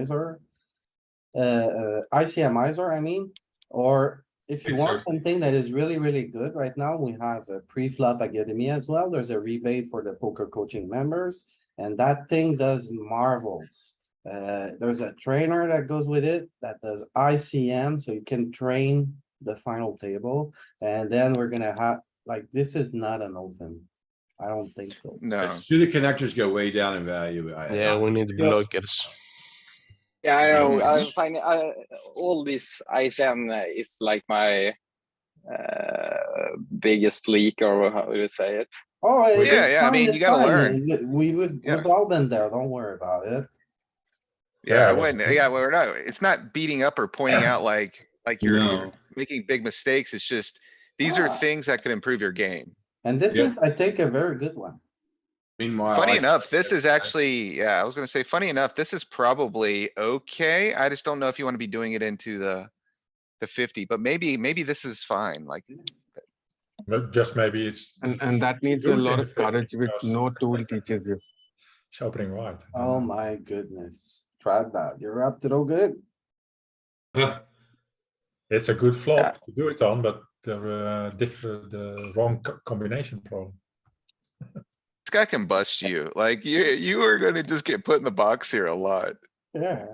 ISR. Uh, uh, ICM ISR, I mean, or if you want Exactly. something that is really, really good right now, we have a pre-flop academy as well. There's a rebate for the poker coaching members. And that thing does marvels. Uh, there's a trainer that goes with it that does ICM, so you can train the final table. And then we're gonna have, like, this is not an open. I don't think so. No, Suited connectors go way down in value. I- Yeah, we need Yeah. blockers. Yeah, I know. I Yes. find uh, all this ISM uh, is like my uh, biggest leak, or how do you say it? Oh, it- Yeah, it's yeah, I fine, mean, you it's gotta fine. learn. We- We would, Yeah. we've all been there, don't worry about it. yeah, I that's wouldn't, true. yeah, well, we're not, it's not beating up or pointing out like, like you're you're No. making big mistakes. It's just, these are Ah. things that could improve your game. And this Yeah. is, I think, a very good one. Meanwhile. Funny Oh, I- enough, this is I- actually, yeah, I was gonna say, funny enough, this is probably okay. I just don't know if you wanna be doing it into the, the fifty, but maybe, maybe this is fine, like, But just maybe it's And, and that needs a Dude, lot in of the 50 courage, which because- no tool teaches you. it's opening wide. Uh-huh. Oh my goodness, tried that. You're up to no good. It's a good flop to do it on, but the uh, diff- the wrong co- combination problem. this guy can bust you. Like, you, you are gonna just get put in the box here a lot. Yeah.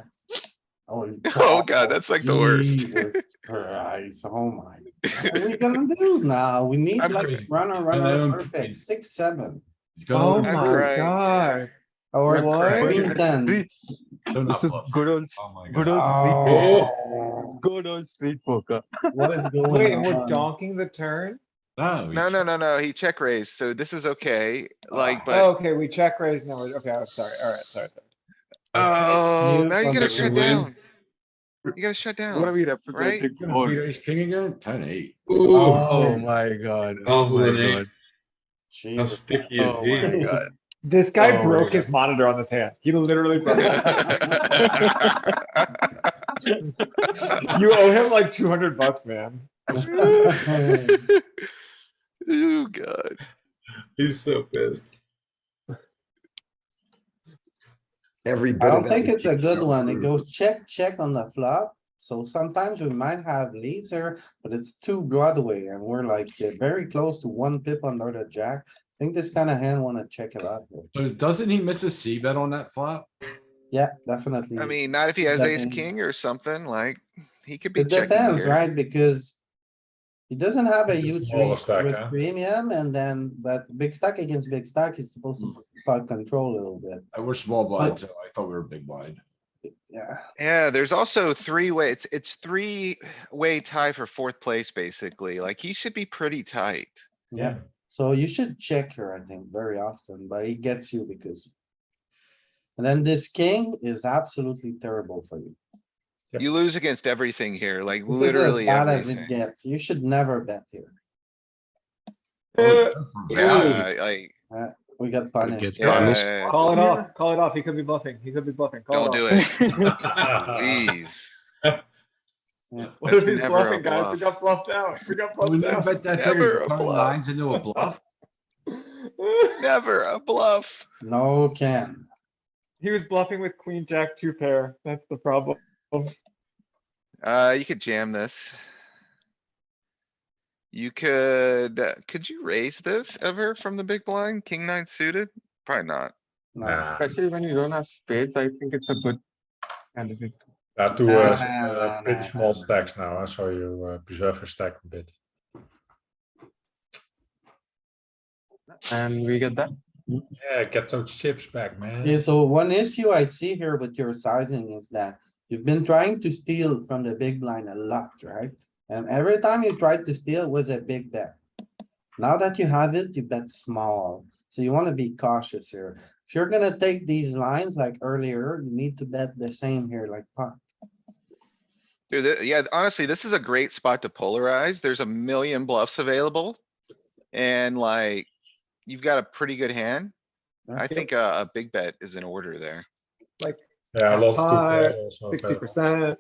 Oh you Oh god, God. that's like the worst. Jesus Christ, oh my. What are we gonna do now? We need I'm like crazy. runner, I'm runner, perfect, crazy. six, seven. It's Oh going. I'm my crying. god, Or I'm crazy. queen ten. Streets. Don't this is upload. good old, Oh my good God. old street, poker. Oh, good old street poker. What is Wait, going Um, we're on? donking the turn? No. we No, no, check. no, no, he check raised, so this is okay, like, Oh, but, Okay, we check raise now. Okay, I'm sorry. Alright, sorry, sorry. oh, you now you gotta fucking shut win. down. You gotta shut What are down. we representing? You're All- gonna beat ace king again? Ten eight. Oh my god, oh Oh, my Renee. god, How Jesus. sticky is oh he? my god. This Oh guy my broke God. his monitor on this hand. He literally broke it. You owe him like two hundred bucks, man. Oh, god. He's so pissed. Every I bit of don't that. think we it's a keep good showing one. It through. goes check, check on the flop. So sometimes we might have leads here, but it's two Broadway and we're like uh, very close to one pip under the jack. I think this kind of hand wanna check it out. here. So doesn't he miss a C bet on that flop? Yeah, definitely. I mean, not if he has that ace in. king or something, like, he could be It checking depends, here. right? Because he doesn't have a It's a huge smaller range stack, with huh? premium and then, but big stack against big stack is supposed Hmm. to put control a little bit. Uh, We're small blind, so I thought we were big blind. Yeah, Yeah, there's also three way, it's, it's three way tie for fourth place, basically. Like, he should be pretty tight. yeah. Mm. So you should check her, I think, very often, but it gets you because. And then this king is absolutely terrible for you. Yep. You lose against everything here, like This is as literally bad as it everything. gets. You should never bet here. Oh, Uh, Yeah, like, We got Get punished. honest. yeah, Call it off, call it off. He could be bluffing. He could be bluffing. Call don't do off. it, please. What if That's he's never a bluffing, guys? We bluff. got bluffed out. We got Would bluffed you out. bet that Never they're a turning bluff. lines into a bluff? Never a bluff. No, Ken. He was bluffing with queen, jack, two pair. That's the problem. Uh, you could jam this. You could, uh, could you raise this ever from the big blind? King nine suited? Probably not. No. Nah, Especially when you don't have spades, I think it's a good candidate. there are two Nah, uh, nah, s- uh, nah, pretty nah, small nah. stacks now, uh, so you uh, preserve your stack a bit. And we get that. Yeah, get those chips back, man. Yeah, so one issue I see here with your sizing is that you've been trying to steal from the big blind a lot, right? And every time you tried to steal was a big bet. Now that you have it, you bet small, so you wanna be cautious here. If you're gonna take these lines like earlier, you need to bet the same here like pot. Dude, th- yeah, honestly, this is a great spot to polarize. There's a million bluffs available. And like, you've got a pretty good hand. I think a, a big bet is in order there. yeah, I love two Five, pairs also Sixty available. percent.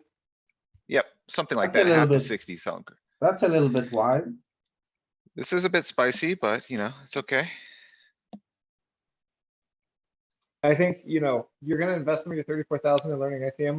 Yep, something like That's a that, little half to bit- sixty thunk. That's a little bit wide. This is a bit spicy, but you know, it's okay. I think, you know, you're gonna invest some of your thirty-four thousand in learning E ICM more.